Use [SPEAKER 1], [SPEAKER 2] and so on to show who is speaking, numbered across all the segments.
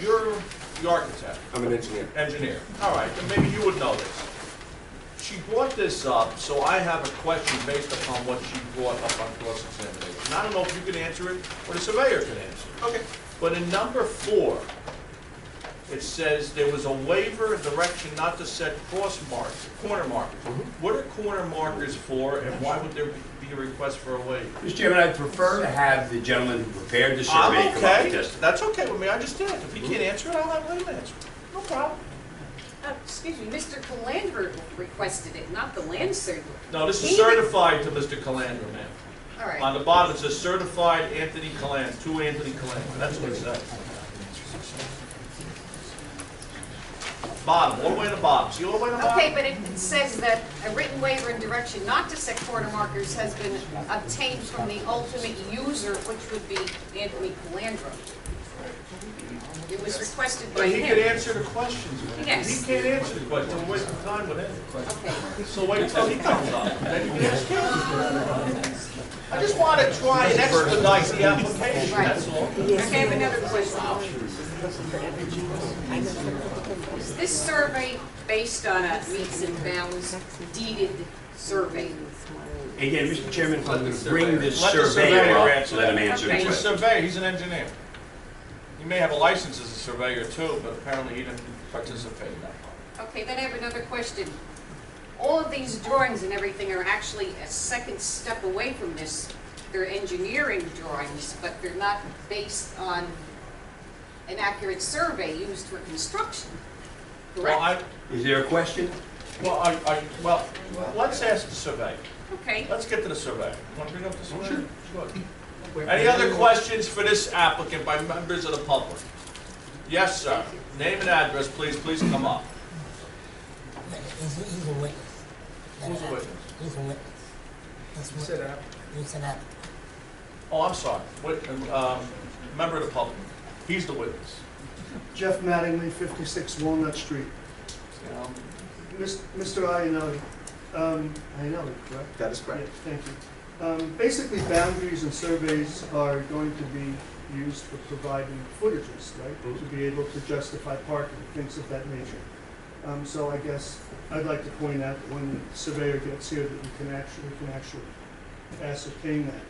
[SPEAKER 1] You're the architect,
[SPEAKER 2] I'm an engineer.
[SPEAKER 1] engineer. All right, then maybe you would know this. She brought this up, so I have a question based upon what she brought up on cross-examination. I don't know if you can answer it or the surveyor can answer it.
[SPEAKER 2] Okay.
[SPEAKER 1] But in number four, it says there was a waiver of direction not to set cross marks, corner markers. What are corner markers for and why would there be a request for a waiver?
[SPEAKER 2] Mr. Chairman, I prefer to have the gentleman who prepared the survey
[SPEAKER 1] I'm
[SPEAKER 2] come up and
[SPEAKER 1] okay,
[SPEAKER 2] testify.
[SPEAKER 1] that's okay with me, I just did. If he can't answer it, I'll have him answer it. No problem.
[SPEAKER 3] Uh, Excuse me, Mr. Calandra requested it, not the land surveyor.
[SPEAKER 1] No, this is
[SPEAKER 3] He re-
[SPEAKER 1] certified to Mr. Calandra, ma'am.
[SPEAKER 3] All right.
[SPEAKER 1] On the bottom, it says certified Anthony Calandra, to Anthony Calandra, that's what it says. Bottom, all the way to the bottom, see all the way to the bottom?
[SPEAKER 3] Okay, but it it says that a written waiver and direction not to set corner markers has been obtained from the ultimate user, which would be Anthony Calandra. It was requested by
[SPEAKER 1] But he could
[SPEAKER 3] him.
[SPEAKER 1] answer the questions, man. He
[SPEAKER 3] Yes.
[SPEAKER 1] can't answer the questions, we're wasting time with him.
[SPEAKER 3] Okay,
[SPEAKER 1] So wait till he comes up, then you can ask him. I just want to try and expedite the application,
[SPEAKER 3] Right.
[SPEAKER 1] that's all.
[SPEAKER 3] I have another question. Is this survey based on a meets and bounds deeded survey?
[SPEAKER 2] Again, Mr. Chairman, if I'm going to bring this
[SPEAKER 1] Let the
[SPEAKER 2] surveyor
[SPEAKER 1] surveyor
[SPEAKER 2] up,
[SPEAKER 1] answer
[SPEAKER 2] let him
[SPEAKER 1] that.
[SPEAKER 2] answer the
[SPEAKER 3] Okay.
[SPEAKER 1] He's a
[SPEAKER 2] question.
[SPEAKER 1] surveyor, he's an engineer. He may have a license as a surveyor too, but apparently he didn't participate in that part.
[SPEAKER 3] Okay, then I have another question. All of these drawings and everything are actually a second step away from this. They're engineering drawings, but they're not based on an accurate survey used for construction,
[SPEAKER 1] Well,
[SPEAKER 3] correct?
[SPEAKER 1] I,
[SPEAKER 2] Is there a question?
[SPEAKER 1] well, I, I, well, let's ask the surveyor.
[SPEAKER 3] Okay,
[SPEAKER 1] Let's get to the surveyor. You want to bring up the surveyor? Sure. Any other questions for this applicant by members of the public? Yes, sir. Name and address, please. Please come up.
[SPEAKER 4] He's, he's a witness.
[SPEAKER 1] Who's the witness?
[SPEAKER 4] He's a witness. That's what, he's an applicant.
[SPEAKER 1] Oh, I'm sorry. Wit- um, member of the public. He's the witness.
[SPEAKER 5] Jeff Mattingly, 56 Walnut Street.
[SPEAKER 1] Um,
[SPEAKER 5] Mis- Mr. Iannelli, um, Iannelli, correct?
[SPEAKER 2] That is
[SPEAKER 5] Yeah, Thank you. Um, Basically, boundaries and surveys are going to be used for providing footages, right? To
[SPEAKER 2] Mm-hmm.
[SPEAKER 5] be able to justify parking, things of that nature. Um, So I guess I'd like to point out that when the surveyor gets here, that we can actually, we can actually ascertain that.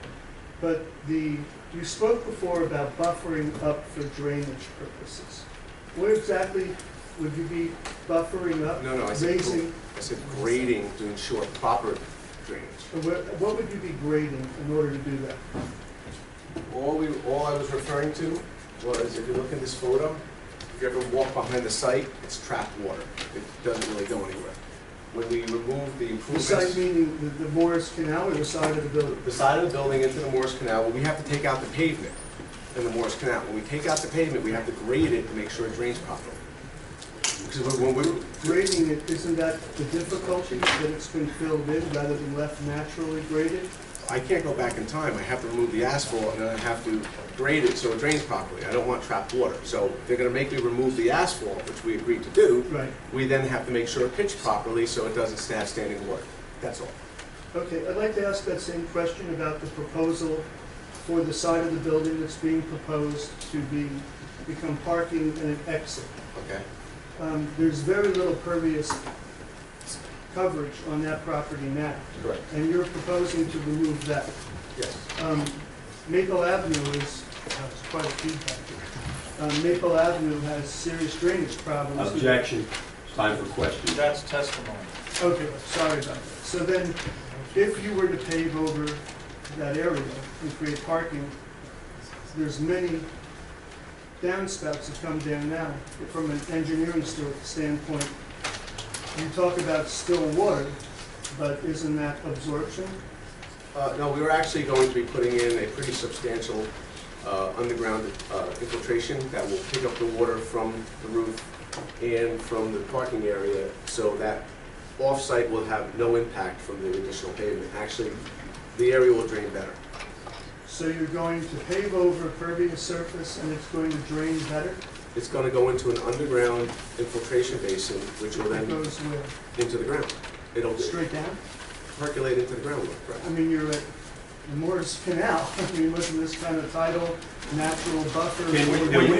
[SPEAKER 5] But the, you spoke before about buffering up for drainage purposes. Where exactly would you be buffering up?
[SPEAKER 2] No, no, I said,
[SPEAKER 5] Raising
[SPEAKER 2] I said grading to ensure proper drainage.
[SPEAKER 5] and where- What would you be grading in order to do that?
[SPEAKER 2] All we, all I was referring to was, if you look in this photo, if you ever walk behind the site, it's trapped water. It doesn't really go anywhere. When we remove the
[SPEAKER 5] The side
[SPEAKER 2] improvements,
[SPEAKER 5] meaning the- the Morris Canal or the side of the building?
[SPEAKER 2] the side of the building into the Morris Canal, well, we have to take out the pavement in the Morris Canal. When we take out the pavement, we have to grade it to make sure it drains properly. Because when we're,
[SPEAKER 5] Grading it, isn't that the difficulty, that it's been filled in rather than left naturally graded?
[SPEAKER 2] I can't go back in time, I have to remove the asphalt, and then I have to grade it so it drains properly. I don't want trapped water. So they're gonna make me remove the asphalt, which we agreed to do.
[SPEAKER 5] Right.
[SPEAKER 2] We then have to make sure it pitched properly so it doesn't have standing water. That's all.
[SPEAKER 5] Okay, I'd like to ask that same question about the proposal for the side of the building that's being proposed to be, become parking and an exit.
[SPEAKER 2] Okay?
[SPEAKER 5] Um, There's very little pervious coverage on that property now,
[SPEAKER 2] Correct.
[SPEAKER 5] and you're proposing to remove that.
[SPEAKER 2] Yes.
[SPEAKER 5] Um, Maple Avenue is, uh, it's quite a feedback here. Um, Maple Avenue has serious drainage problems.
[SPEAKER 6] Objection. It's time for questions.
[SPEAKER 1] That's testimony.
[SPEAKER 5] Okay, sorry about that. So then, if you were to pave over that area and create parking, there's many downspouts that come down now. From an engineering sto- standpoint, you talk about still water, but isn't that absorption?
[SPEAKER 2] Uh, no, we were actually going to be putting in a pretty substantial uh, underground uh, infiltration that will pick up the water from the roof and from the parking area, so that off-site will have no impact from the additional pavement. Actually, the area will drain better.
[SPEAKER 5] So you're going to pave over pervious surface and it's going to drain better?
[SPEAKER 2] It's gonna go into an underground infiltration basin, which will
[SPEAKER 5] It
[SPEAKER 2] then
[SPEAKER 5] goes where?
[SPEAKER 2] into the ground. It'll
[SPEAKER 5] Straight down?
[SPEAKER 2] percolate into the groundwater, correct?
[SPEAKER 5] I mean, you're at the Morris Canal. I mean, wasn't this kind of tidal, natural buffer?
[SPEAKER 6] Can we-
[SPEAKER 5] Where-
[SPEAKER 6] can we-